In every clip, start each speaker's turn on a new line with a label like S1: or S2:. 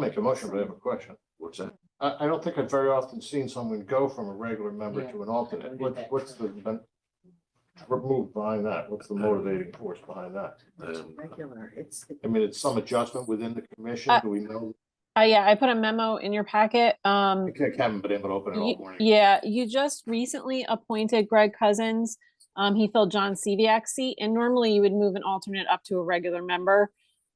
S1: make a motion, but I have a question.
S2: What's that?
S1: I, I don't think I've very often seen someone go from a regular member
S3: Yeah,
S1: to an
S3: I
S1: alternate.
S3: don't
S1: What,
S3: do that.
S1: what's the, ben- move behind that? What's the motivating force behind that?
S2: Uh, Um,
S3: Regular, it's.
S1: I mean, it's some adjustment within the commission.
S4: Uh,
S1: Do we know?
S4: Uh, yeah, I put a memo in your packet. Um,
S1: I think I haven't been able to open it all
S4: Ye-
S1: morning.
S4: Yeah, you just recently appointed Greg Cousins. Um, he filled John Seviak's seat, and normally you would move an alternate up to a regular member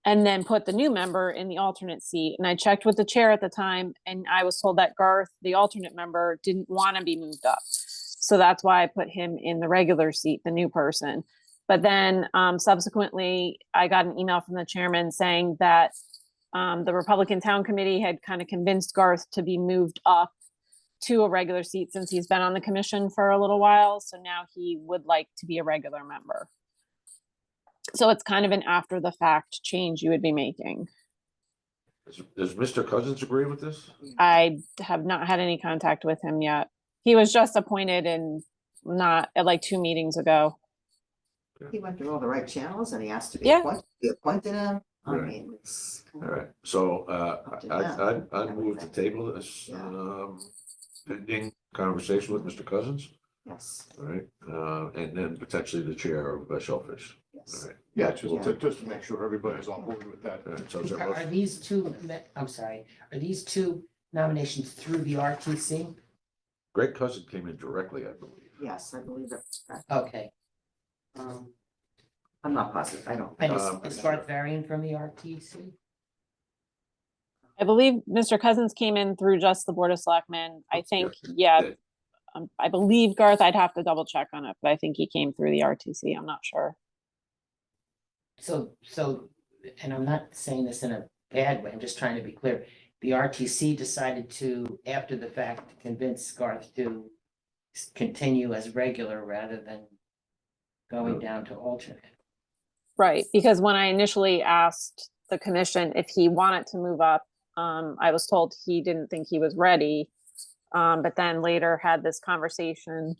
S4: and then put the new member in the alternate seat. And I checked with the chair at the time, and I was told that Garth, the alternate member, didn't want to be moved up. So that's why I put him in the regular seat, the new person. But then um, subsequently, I got an email from the chairman saying that um, the Republican Town Committee had kind of convinced Garth to be moved up to a regular seat since he's been on the commission for a little while, so now he would like to be a regular member. So it's kind of an after the fact change you would be making.
S2: Does does Mr. Cousins agree with this?
S4: I have not had any contact with him yet. He was just appointed in not, at like two meetings ago.
S3: He went through all the right channels and he asked to be
S4: Yeah.
S3: appointed, he appointed him. I
S2: Right.
S3: mean, it's.
S2: All right, so uh,
S3: Up to
S2: I,
S3: them.
S2: I, I move to table this,
S3: Yeah.
S2: um, pending conversation with Mr. Cousins,
S3: Yes,
S2: all right? Uh, and then potentially the chair of uh, Shellfish, all
S3: yes.
S2: right?
S1: Yeah, just to, just to make sure everybody's on board with that.
S2: All right, so is there a
S5: Are are
S2: motion?
S5: these two, me- I'm sorry, are these two nominations through the RTC?
S2: Greg Cousins came in directly, I believe.
S3: Yes, I believe that.
S5: Okay. Um,
S3: I'm not positive. I don't.
S5: And
S2: Um,
S5: is, is Bart Varian from the RTC?
S4: I believe Mr. Cousins came in through just the Board of Selectmen. I think, yeah.
S2: did.
S4: Um, I believe Garth, I'd have to double check on it, but I think he came through the RTC. I'm not sure.
S5: So, so, and I'm not saying this in a bad way, I'm just trying to be clear. The RTC decided to, after the fact, convince Garth to s- continue as regular rather than going down to alternate.
S4: Right, because when I initially asked the commission if he wanted to move up, um, I was told he didn't think he was ready. Um, but then later had this conversation,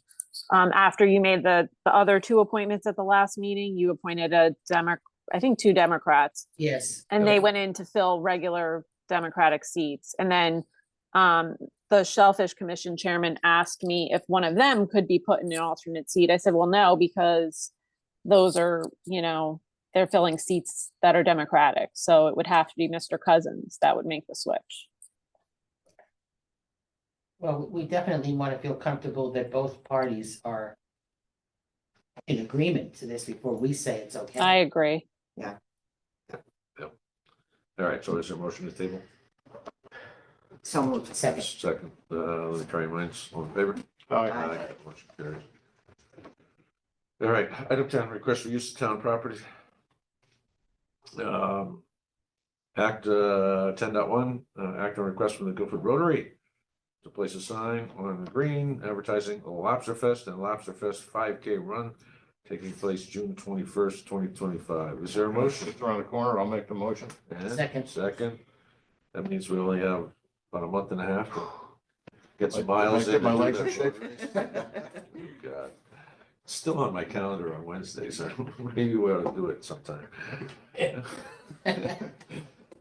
S4: um, after you made the, the other two appointments at the last meeting, you appointed a Demo, I think two Democrats.
S5: Yes.
S4: And they went in to fill regular Democratic seats. And then um, the Shellfish Commission chairman asked me if one of them could be put in an alternate seat. I said, well, no, because those are, you know, they're filling seats that are Democratic. So it would have to be Mr. Cousins that would make the switch.
S5: Well, we definitely want to feel comfortable that both parties are in agreement to this before we say it's okay.
S4: I agree.
S2: All right, so is there a motion to table?
S3: So moved.
S5: Second,
S2: Second, uh, let me try your minds, all in favor?
S1: All right,
S3: Aye.
S2: Motion carries. All right, item ten, request for use of town property. Um, Act uh, ten dot one, uh, act on request from the Guilford Rotary to place a sign on the green advertising the Lobster Fest and Lobster Fest five K run taking place June twenty-first, twenty twenty-five. Is there a motion?
S1: just around the corner. I'll make the motion.
S2: And
S5: Second.
S2: Second. That means we only have about a month and a half to get some
S1: I- I
S2: miles in.
S1: get
S2: and
S1: my
S2: do
S1: legs
S2: that
S1: in shape.
S2: fundraiser. God. Still on my calendar on Wednesday, so maybe we ought to do it sometime.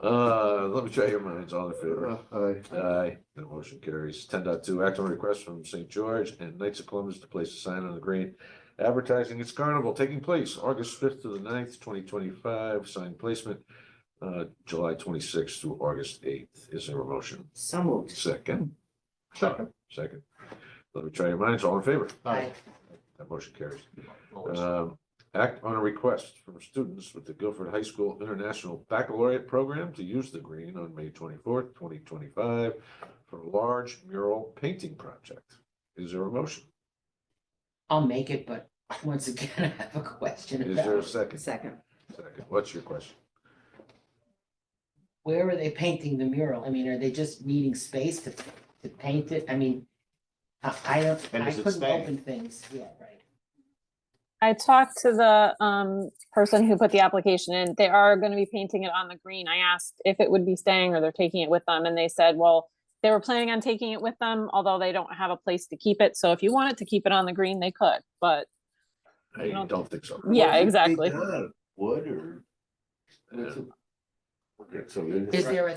S2: Uh, let me try your minds, all in favor?
S1: Aye.
S2: Aye, the motion carries. Ten point two. act on request from St. George and Knights of Columbus to place a sign on the green advertising its carnival taking place August fifth to the 9th, twenty twenty-five, sign placement uh, July twenty-sixth through August eighth. Is there a motion?
S3: So moved.
S2: Second,
S1: Second.
S2: second. Let me try your minds, all in favor?
S1: Aye.
S2: That motion carries.
S1: Always.
S2: Um, act on a request from students with the Guilford High School International Baccalaureate Program to use the green on May twenty-fourth, twenty twenty-five for a large mural painting project. Is there a motion?
S5: I'll make it, but once again, I have a question
S2: Is there a
S5: about
S2: second?
S3: Second.
S2: Second. What's your question?
S5: where are they painting the mural? I mean, are they just needing space to, to paint it? I mean, I, I don't,
S1: And
S5: I
S1: is it
S5: couldn't
S1: staying?
S5: open things, yeah, right.
S4: I talked to the um person who put the application in. They are gonna be painting it on the green. I asked if it would be staying or they're taking it with them and they said, well, they were planning on taking it with them, although they don't have a place to keep it. So if you wanted to keep it on the green, they could, but
S2: I
S4: don't-
S2: don't think so.
S4: yeah, exactly.
S2: Wood or?
S5: Is there a